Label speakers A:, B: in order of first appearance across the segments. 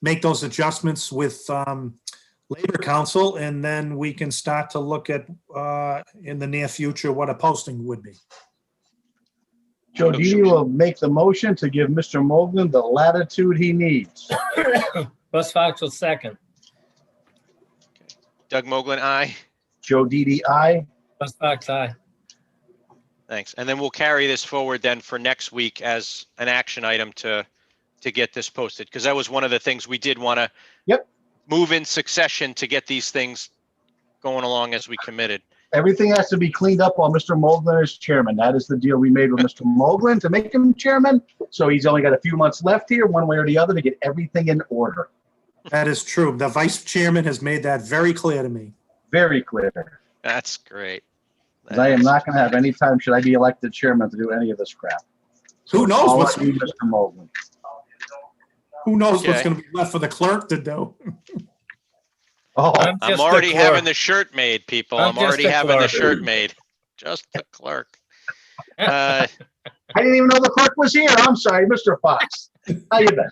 A: make those adjustments with um, Labor Council, and then we can start to look at, uh, in the near future, what a posting would be.
B: Joe Didi will make the motion to give Mr. Mogul the latitude he needs.
C: Russ Fox will second.
D: Doug Moglen, aye.
B: Joe Didi, aye.
C: Russ Fox, aye.
D: Thanks. And then we'll carry this forward then for next week as an action item to, to get this posted, because that was one of the things we did want to
B: Yep.
D: move in succession to get these things going along as we committed.
B: Everything has to be cleaned up while Mr. Moglen is chairman. That is the deal we made with Mr. Moglen to make him chairman. So he's only got a few months left here, one way or the other, to get everything in order.
A: That is true. The vice chairman has made that very clear to me.
B: Very clear.
D: That's great.
B: 'Cause I am not going to have any time, should I be elected chairman, to do any of this crap.
A: Who knows
B: All
A: what's,
B: of you, Mr. Moglen.
A: who knows what's
D: Okay.
A: gonna be left for the clerk to do?
B: Oh,
D: I'm already having the shirt made, people.
C: I'm
D: I'm
C: just
D: already
C: a
D: having the
C: clerk.
D: shirt made. Just a clerk.
B: I
D: Uh,
B: didn't even know the clerk was here. I'm sorry, Mr. Fox. How you been?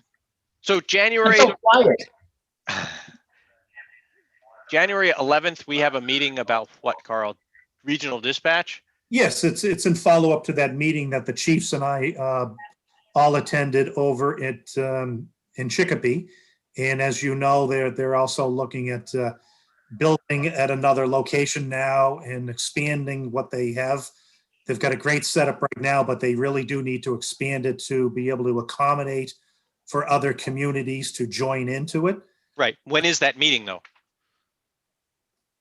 D: So
B: You're
D: January,
B: so quiet.
D: January 11th, we have a meeting about what, Carl? Regional dispatch?
A: Yes, it's, it's in follow-up to that meeting that the chiefs and I uh, all attended over at, um, in Chicopee. And as you know, they're, they're also looking at uh, building at another location now and expanding what they have. They've got a great setup right now, but they really do need to expand it to be able to accommodate for other communities to join into it.
D: Right. When is that meeting though?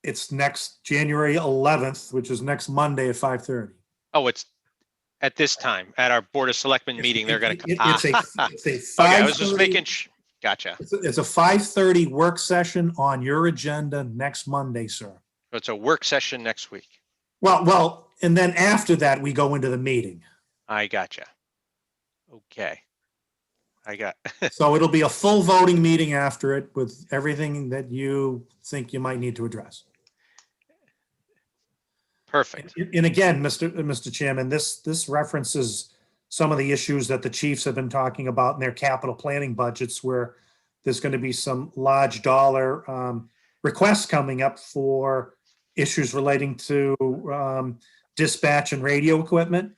A: It's next January 11th, which is next Monday at 5:30.
D: Oh, it's at this time, at our Board of Selectmen meeting, they're gonna.
A: It-
D: come.
A: it-
D: Ah,
A: It's a, it's a
D: Okay, I was just
A: 5:30
D: making, sh- gotcha.
A: It's a- It's a five thirty work session on your agenda next Monday, sir.
D: So It's a work session next week.
A: Well, well, and then after that, we go into the meeting.
D: I gotcha. Okay. I got,
A: So it'll be a full voting meeting after it with everything that you think you might need to address.
D: perfect.
A: And and again, Mr. uh, Mr. Chairman, this, this references some of the issues that the chiefs have been talking about in their capital planning budgets where there's going to be some large dollar um, requests coming up for issues relating to um, dispatch and radio equipment.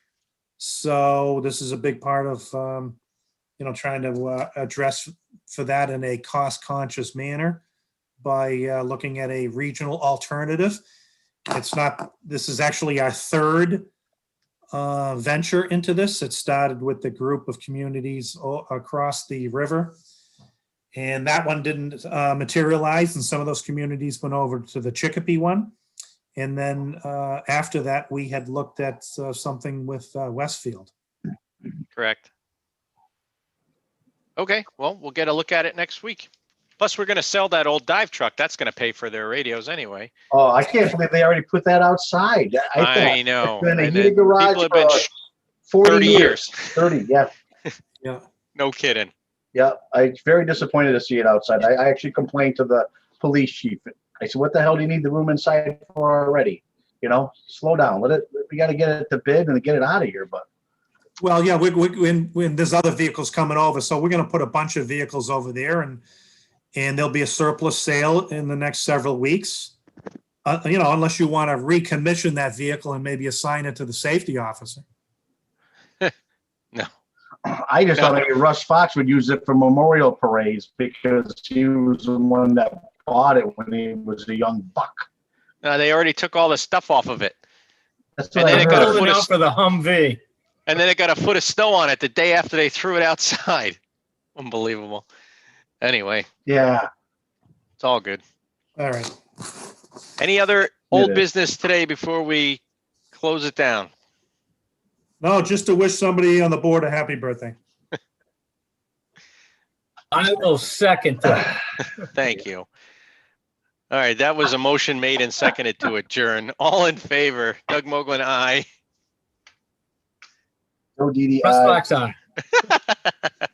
A: So this is a big part of, um, you know, trying to uh, address for that in a cost conscious manner by uh, looking at a regional alternative it's not, this is actually our third uh, venture into this. It started with the group of communities o- across the river. And that one didn't uh, materialize and some of those communities went over to the Chicopee one. And then uh, after that, we had looked at uh, something with uh, Westfield.
D: Correct. Okay, well, we'll get a look at it next week. Plus, we're gonna sell that old dive truck. That's gonna pay for their radios anyway.
B: Oh, I can't believe they already put that outside. I think
D: I know.
B: been a
D: and
B: heated
D: it-
B: garage
D: people have been
B: for
D: sh-
B: 40
D: 30
B: years.
D: years.
B: 30, yeah.
A: Yeah.
D: No kidding.
B: Yeah, I very disappointed to see it outside. I, I actually complained to the police chief. I said, "What the hell do you need the room inside for already? You know, slow down. Let it. We got to get it to bid and get it out of here." But
A: Well, yeah, we, we, when, when there's other vehicles coming over, so we're gonna put a bunch of vehicles over there and, and there'll be a surplus sale in the next several weeks. Uh, you know, unless you want to recommission that vehicle and maybe assign it to the safety officer.
B: I just thought maybe Russ Fox would use it for memorial parades because he was the one that bought it when he was a young buck.
D: No, Uh, they already took all the stuff off of it.
B: That's
D: And
B: what I
D: then it got
B: heard.
C: Holding out for the Humvee.
D: And then it got a foot of snow on it the day after they threw it outside. Unbelievable. Anyway,
B: Yeah.
D: it's all good.
A: All right.
D: Any other old
B: is.
D: business today before we close it down?
A: No, just to wish somebody on the board a happy birthday.
C: I will second that.
D: Thank you. All right, that was a motion made and seconded to adjourn. All in favor, Doug Moglen, aye.
B: No DDI.
C: Russ Fox, aye.